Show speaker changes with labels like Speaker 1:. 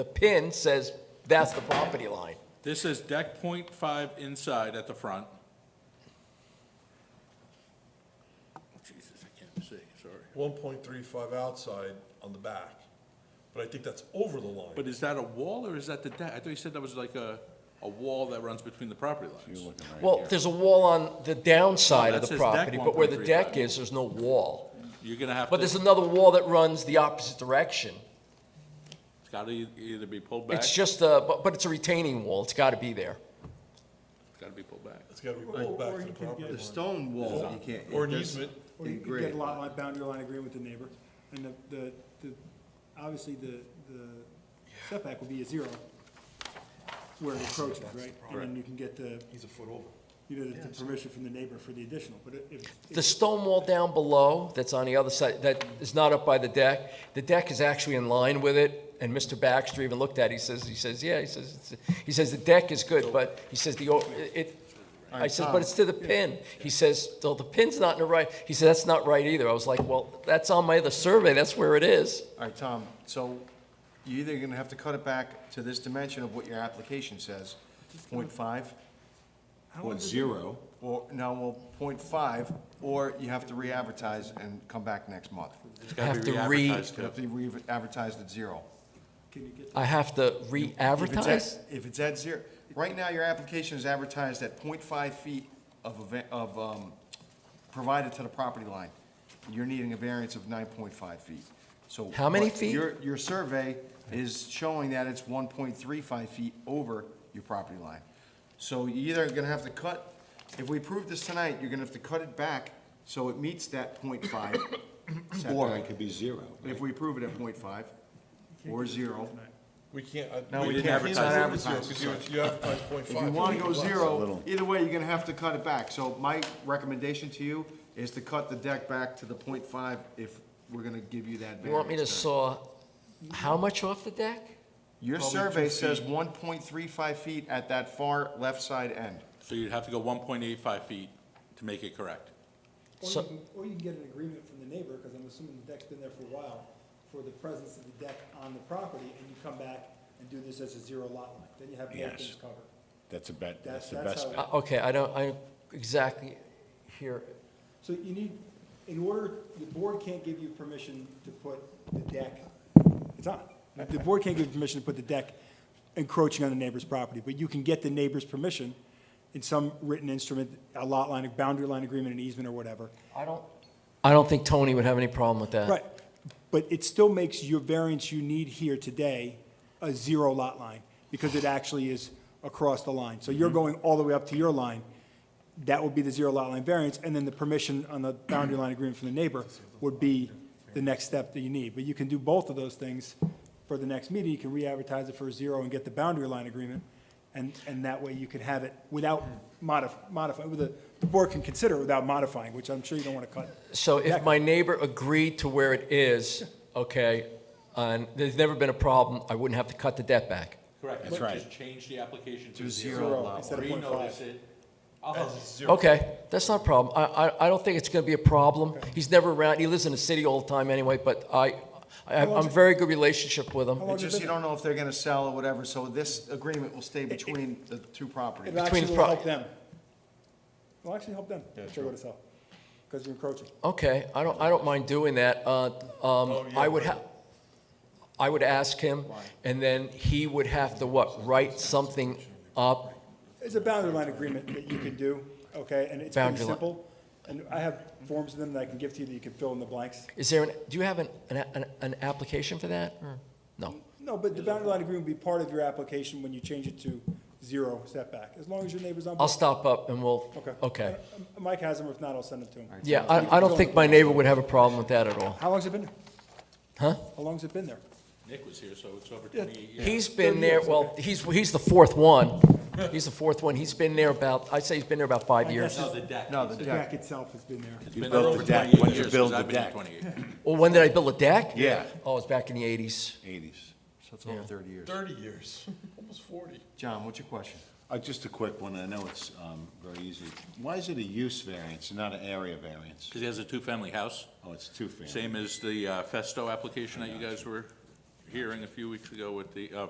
Speaker 1: The pin says that's the property line.
Speaker 2: This is deck point five inside at the front. Jesus, I can't see, sorry.
Speaker 3: one point three five outside on the back. But I think that's over the line.
Speaker 2: But is that a wall or is that the deck? I thought you said that was like a, a wall that runs between the property lines.
Speaker 1: Well, there's a wall on the downside
Speaker 2: No,
Speaker 1: of
Speaker 2: that
Speaker 1: the
Speaker 2: says deck
Speaker 1: property, but where the
Speaker 2: 1.35.
Speaker 1: deck is, there's no wall.
Speaker 2: You're gonna have to,
Speaker 1: But there's
Speaker 2: it's
Speaker 1: another wall that runs the opposite direction.
Speaker 2: gotta e- either be pulled back,
Speaker 1: It's
Speaker 2: it's
Speaker 1: just a, but, but it's a retaining wall. It's gotta be there.
Speaker 2: gotta be pulled back.
Speaker 3: It's gotta be pulled back to the property
Speaker 4: The
Speaker 3: line.
Speaker 4: stone wall, you can't.
Speaker 3: Or an
Speaker 4: there's-
Speaker 3: easement.
Speaker 4: in
Speaker 5: Or you could
Speaker 4: grade.
Speaker 5: get a lot line, boundary line agreement with the neighbor, and the, the, the, obviously, the, the setback would be a zero where it approaches, right? And then you can get the,
Speaker 3: He's a foot over.
Speaker 5: you know, the- the permission from the neighbor for the additional, but it- if.
Speaker 1: The stone wall down below, that's on the other side, that is not up by the deck, the deck is actually in line with it, and Mr. Baxter even looked at it, he says, he says, yeah, he says, it's- he says, the deck is good, but, he says, the, o- it, I says, but it's to the pin. He says, well, the pin's not in the right, he says, that's not right either. I was like, well, that's on my other survey, that's where it is.
Speaker 4: All right, Tom, so you're either gonna have to cut it back to this dimension of what your application says, point five,
Speaker 6: Point zero.
Speaker 4: or, no, well, point five, or you have to re-advertise and come back next month.
Speaker 2: It's gotta
Speaker 1: Have
Speaker 2: be
Speaker 1: to re-
Speaker 2: re-advertised
Speaker 4: You
Speaker 2: too.
Speaker 4: have to re-advertise at zero.
Speaker 5: Can you get,
Speaker 1: I have to
Speaker 4: If it's at-
Speaker 1: re-advertise?
Speaker 4: If it's at zero, right now, your application is advertised at 0.5 feet of, a va- of, um, provided to the property line. You're needing a variance of nine point five feet, so.
Speaker 1: How many
Speaker 4: but
Speaker 1: feet?
Speaker 4: Your, your survey is showing that it's one point three five feet over your property line. So you're either gonna have to cut, if we approve this tonight, you're gonna have to cut it back so it meets that 0.5
Speaker 6: Or
Speaker 4: setback.
Speaker 6: it could be zero.
Speaker 4: If we approve it at 0.5 or zero.
Speaker 3: We can't. I-
Speaker 4: No,
Speaker 3: we
Speaker 4: we
Speaker 3: can't
Speaker 4: can't advertise.
Speaker 3: zero, 'cause you, you advertise point
Speaker 4: If
Speaker 3: five.
Speaker 4: you wanna go zero,
Speaker 6: Little.
Speaker 4: either way, you're gonna have to cut it back. So my recommendation to you is to cut the deck back to the point five if we're gonna give you that variance.
Speaker 1: You want me to
Speaker 4: then.
Speaker 1: saw how much off the deck?
Speaker 4: Your survey says one point three five feet at that far left side end.
Speaker 2: So you'd have to go one point eight five feet to make it correct.
Speaker 5: or
Speaker 1: So-
Speaker 5: you can, or you can get an agreement from the neighbor, because I'm assuming the deck's been there for a while, for the presence of the deck on the property, and you come back and do this as a zero lot line, then you have both
Speaker 6: Yes.
Speaker 5: things covered.
Speaker 6: That's a bet,
Speaker 5: That's-
Speaker 6: that's the
Speaker 5: that's
Speaker 6: best
Speaker 5: how-
Speaker 6: bet.
Speaker 1: Uh, Okay, I don't, I exactly here,
Speaker 5: So you need, in order, the board can't give you permission to put the deck, it's on. The board can't give you permission to put the deck encroaching on the neighbor's property, but you can get the neighbor's permission in some written instrument, a lot line, a boundary line agreement, an easement or whatever.
Speaker 1: I don't, I don't think Tony would have any problem with that.
Speaker 5: Right, but it still makes your variance you need here today a zero lot line, because it actually is across the line. So you're going all the way up to your line, that would be the zero lot line variance, and then the permission on the boundary line agreement from the neighbor would be the next step that you need. But you can do both of those things for the next meeting, you can re-advertise it for a zero and get the boundary line agreement, and, and that way you can have it without modif, modify, with the, the board can consider it without modifying, which I'm sure you don't want to cut.
Speaker 1: So if
Speaker 5: Exactly.
Speaker 1: my neighbor agreed to where it is, okay, and there's never been a problem, I wouldn't have to cut the debt back.
Speaker 2: Correct.
Speaker 6: That's right.
Speaker 2: Just change the application to
Speaker 4: To
Speaker 2: zero. Uh,
Speaker 4: zero lot
Speaker 5: Instead of point five.
Speaker 2: Renotice it. I'll help you.
Speaker 1: Okay, that's not a problem. I, I, I don't think it's gonna be a problem. He's never around, he lives in the city all the time anyway, but I, I have, I'm very good relationship with him.
Speaker 5: long
Speaker 4: It's
Speaker 5: has it
Speaker 4: just you
Speaker 5: been?
Speaker 4: don't know if they're gonna sell or whatever, so this agreement will stay between the two properties.
Speaker 5: It actually
Speaker 1: the
Speaker 5: will
Speaker 1: pro-
Speaker 5: help them. It'll actually help them, if they go to sell, because you're encroaching.
Speaker 1: Okay, I don't, I don't mind doing that. Uh,
Speaker 5: Oh,
Speaker 1: um, I would ha, I would ask him, and then he would have to what, write something up?
Speaker 5: It's a boundary line agreement that you can do, okay, and it's pretty
Speaker 1: Boundary line.
Speaker 5: simple. And I have forms of them that I can give to you that you can fill in the blanks.
Speaker 1: Is there an, do you have an, an, an- an application for that,
Speaker 5: Hmm.
Speaker 1: or, no?
Speaker 5: No, but the boundary line agreement will be part of your application when you change it to zero setback, as long as your neighbor's on
Speaker 1: I'll
Speaker 5: board.
Speaker 1: stop up and we'll,
Speaker 5: Okay.
Speaker 1: okay.
Speaker 5: Uh, Mike has them, if not, I'll send them to him.
Speaker 1: Yeah, I, I don't think my neighbor would have a problem with that at all.
Speaker 5: How long's it been? there?
Speaker 1: Huh?
Speaker 5: How long's it been there?
Speaker 2: Nick was here, so it's over twenty-eight years.
Speaker 1: He's been there, well, he's, he's the fourth one. He's the fourth one. He's been there about, I'd say he's been there about five
Speaker 5: My
Speaker 1: years.
Speaker 5: guess
Speaker 2: No, Oh, the deck.
Speaker 4: No,
Speaker 2: he
Speaker 4: the
Speaker 2: said.
Speaker 5: The deck itself has been there.
Speaker 2: It's
Speaker 6: You
Speaker 2: been
Speaker 6: built
Speaker 2: there
Speaker 6: the
Speaker 2: over
Speaker 6: deck.
Speaker 2: 28
Speaker 6: When you
Speaker 2: years,
Speaker 6: build
Speaker 2: 'cause
Speaker 6: the
Speaker 2: I've been here
Speaker 6: deck.
Speaker 2: 28.
Speaker 1: Well, when did I build a deck?
Speaker 6: Yeah.
Speaker 1: Oh, it's back in the eighties.
Speaker 6: Eighties.
Speaker 4: So it's over thirty years.
Speaker 3: Thirty years, almost forty.
Speaker 4: John, what's your question?
Speaker 6: Uh, just a quick one, I know it's, um, very easy. Why is it a use variance, and not an area variance?
Speaker 2: Because he has a two-family house,
Speaker 6: Oh, it's two family.
Speaker 2: same as the uh, Festo application that you guys were hearing a few weeks ago with the, uh,